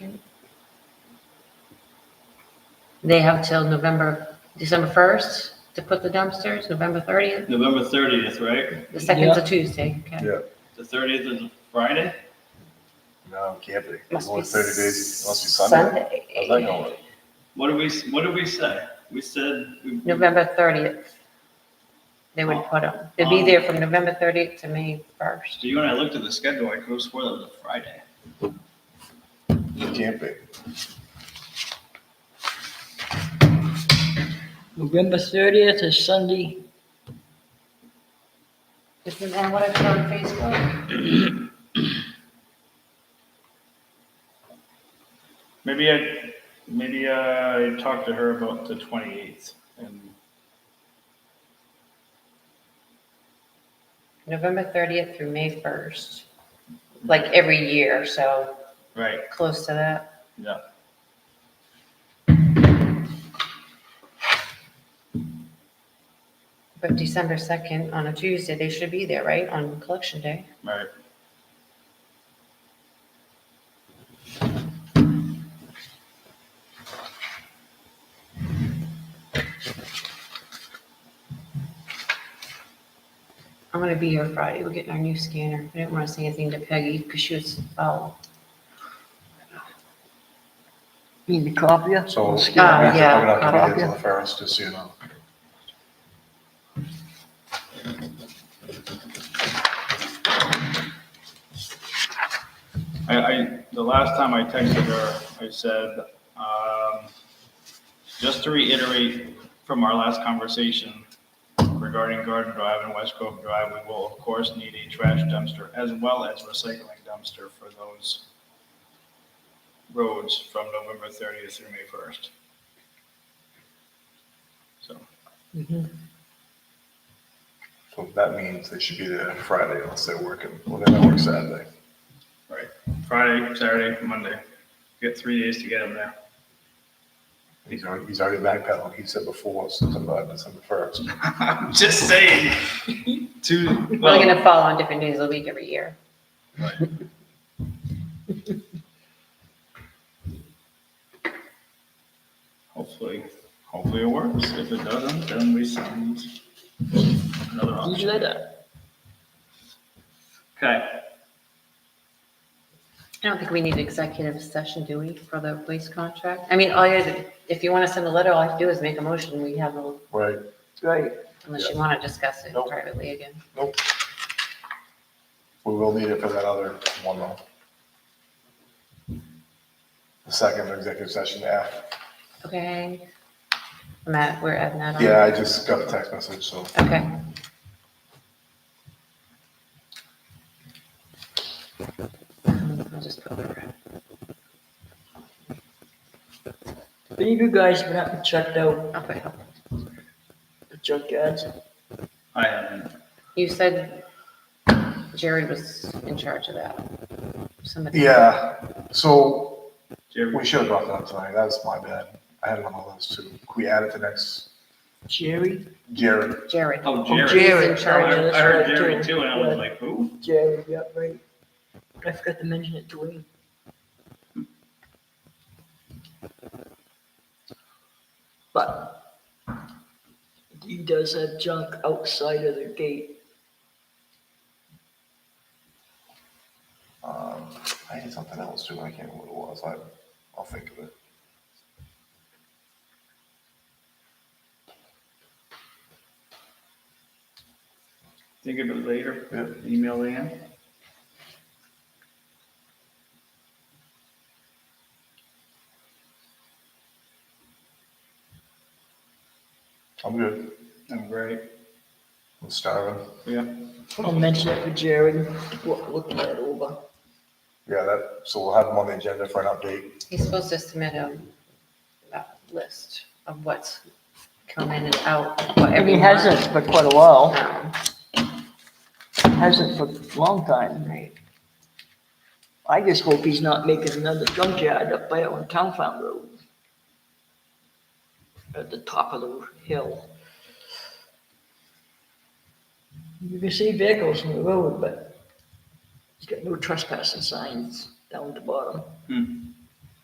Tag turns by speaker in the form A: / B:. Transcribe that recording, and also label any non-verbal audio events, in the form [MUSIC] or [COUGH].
A: They have till November, December 1st to put the dumpsters, November 30th.
B: November thirtieth, right?
A: The second's a
C: Yeah.
A: Tuesday, okay.
D: Yeah,
B: The thirtieth is Friday?
D: no, it can't be. It's
A: Must
D: only
A: be
D: thirty days, it must be Sunday. How's that gonna work?
B: What did we, what did we say? We said. we-
A: November 30th. They would put them, they'd be
B: Oh.
A: there from November 30th to May 1st.
B: So you and I looked at the schedule, I could have sworn that was a Friday.
D: It can't be.
C: November thirtieth is Sunday.
A: Isn't that what I put on Facebook?
B: Maybe I, maybe I talked to her about the twenty-eighth and
A: November 30th through May 1st, like every year, so
B: Right,
A: close to that.
B: yeah.
A: But December 2nd on a Tuesday, they should be there, right, on collection day?
B: Right.
A: I'm gonna be here Friday, we're getting our new scanner. I didn't wanna say anything to Peggy, because she was, oh,
C: Need a copier?
D: So we're
A: yeah,
C: uh,
D: not we're not gonna get
C: yeah.
D: to the first, just so you know.
B: I, I, the last time I texted her, I said, um, just to reiterate from our last conversation regarding Garden Drive and West Cove Drive, we will of course need a trash dumpster as well as recycling dumpster for those roads from November thirtieth through May first. So,
D: So that means they should be there Friday unless they're working, well, they don't work Saturday.
B: right, Friday, Saturday, Monday, get three days to get them there.
D: He's already, he's already backpedaling, he said before, September, December first.
B: I'm just saying, [LAUGHS] two,
A: we're
B: well,
A: gonna fall on different days of the week every year.
B: Hopefully, hopefully it works. If it doesn't, then we send another option.
C: Usually that.
B: Okay,
A: I don't think we need executive session, do we, for the police contract? I mean, all you, if you wanna send a letter, all I have to do is make a motion, we have, a-
D: Right,
C: Right.
A: unless you wanna discuss it
D: Nope.
A: privately again.
D: we will need it for that other one though. The second executive session, yeah.
A: Okay. Matt, we're adding that on.
D: Yeah, I just got a text message, so
A: Okay. I'll just put it around.
C: If any of you guys went up and checked out
A: I'll put help.
C: the junkyards,
B: I haven't.
A: You said Jerry was in charge of that. Somebody.
D: Yeah, so
B: Jerry,
D: we should have brought that up tonight. That's my bad. I had it on my list too. Can we add it to next?
C: Jerry,
D: Jerry,
A: Jerry.
B: oh,
C: Oh,
B: Jerry.
C: Jerry.
A: He's in charge.
B: I I heard
C: That's right,
B: Jerry
C: too.
B: too, and I was
C: Yeah.
B: like, who?
C: Jerry, yeah, right. I forgot to mention it to Wayne. But he does have junk outside of the gate.
D: um, I had something else too. I can't remember what it was. I, I'll think of it.
B: Think of it later.
D: Yeah.
B: Email Leanne.
D: I'm good.
B: I'm great.
D: I'm starving.
B: Yeah.
C: I'll mention it to Jerry, Look looking it over.
D: Yeah, that, so we'll have them on the agenda for an update.
A: He's supposed to submit a, a list of what's come in and out, what
C: And he
A: every
C: hasn't
A: month.
C: for quite a while,
A: Um,
C: hasn't for a long time.
A: Right.
C: I just hope he's not making another junkyard up there on Town Farm Road. At the top of the hill. You can see vehicles on the road, but he's got no trespassing signs down at the bottom.
B: Hmm.